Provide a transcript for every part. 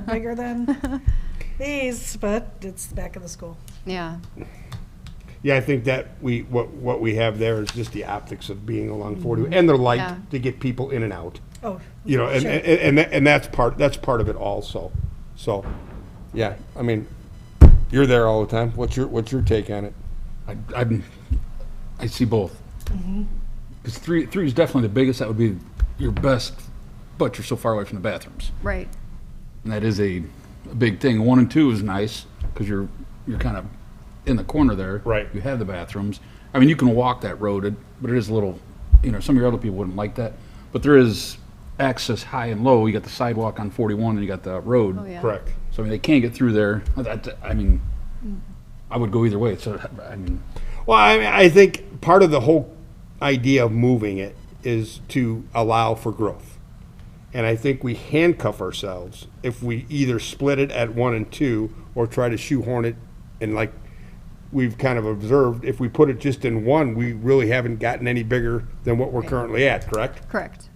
bigger than these, but it's the back of the school. Yeah, Yeah, I think that we, what, what we have there is just the optics of being along 40, and they're Mm-hmm. Yeah. light to get people in and out. Oh, You know, and, Sure. and, and that- and that's part, that's part of it also. So, yeah, I mean, you're there all the time. What's your, what's your take on it? I, I'm, I see both. Mm-hmm. Because three, three is definitely the biggest. That would be your best, but you're so far away from the bathrooms, right. and that is a, a big thing. One and two is nice because you're you're kind of in the corner there. Right. You have the bathrooms. I mean, you can walk that road, it- but it is a little. You know, some of your other people wouldn't like that, but there is access high and low. You got the sidewalk on 41, and you got the road. Oh, yeah. Correct. So I mean, they can't get through there. I, I- I mean, Mm. I would go either way. So I mean, Well, I, mean, I think part of the whole idea of moving it is to allow for growth. And I think we handcuff ourselves if we either split it at one and two or try to shoehorn it. And like we've kind of observed, if we put it just in one, we really haven't gotten any bigger than what we're currently at, correct? Correct.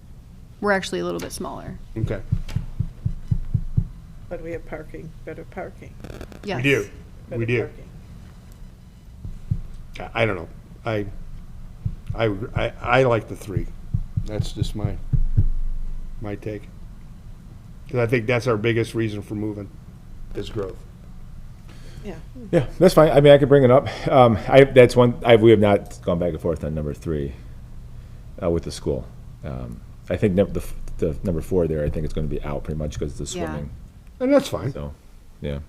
We're actually a little bit smaller. Okay. But we have parking, better parking. Yes. We do. We better do. parking. I I don't know. I, I, I, I like the three. That's just my, my take. Because I think that's our biggest reason for moving, is growth. Yeah, Yeah, that's fine. I mean, I could bring it up. Um, I, that's one, I, we have not gone back and forth on number three, uh, with the school. Um, I think num- the, f- the number four there, I think it's gonna be out pretty much because of the Yeah. swimming, And that's fine. so, yeah.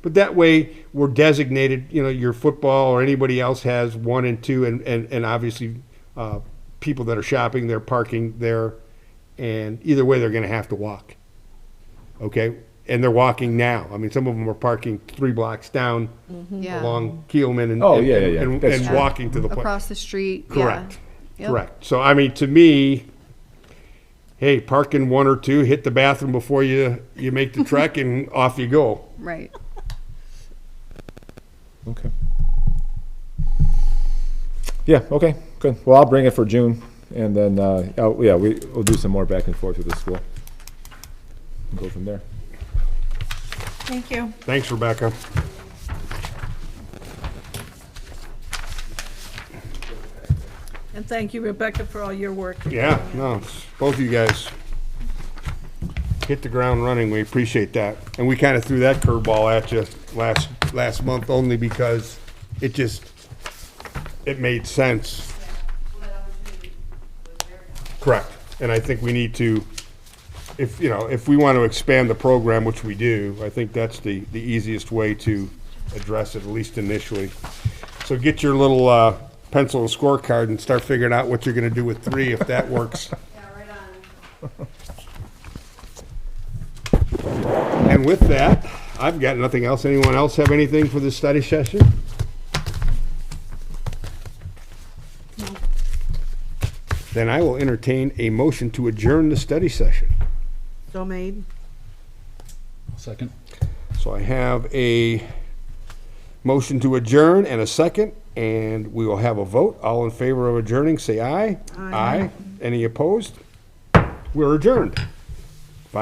But that way, we're designated, you know, your football or anybody else has one and two, and, and, and obviously, uh, people that are shopping, they're parking there, and either way, they're gonna have to walk. Okay? And they're walking now. I mean, some of them are parking three blocks down Yeah. along Keelman and. Oh, and- yeah, yeah, yeah. And, That's and true. walking to the place. Across the street. yeah. Correct. Yep. Correct. So, I mean, to me, hey, park in one or two, hit the bathroom before you, you make the trek, and off you go. Right. Okay. Yeah, okay, good. Well, I'll bring it for June, and then, uh, oh, yeah, we, we'll do some more back and forth with the school. Go from there. thank you. Thanks, Rebecca. and thank you, Rebecca, for all your work. Yeah, no, it's both of you guys hit the ground running. We appreciate that. And we kind of threw that curveball at you last, last month only because it just, it made sense. Correct. And I think we need to, if, you know, if we want to expand the program, which we do, I think that's the, the easiest way to address it, at least initially. So get your little uh, pencil and scorecard and start figuring out what you're going to do with three, if that works. And with that, I've got nothing else. Anyone else have anything for this study session? Then I will entertain a motion to adjourn the study session. So made. second. So I have a motion to adjourn and a second, and we will have a vote. All in favor of adjourning, say aye. Aye. Any opposed? We're adjourned.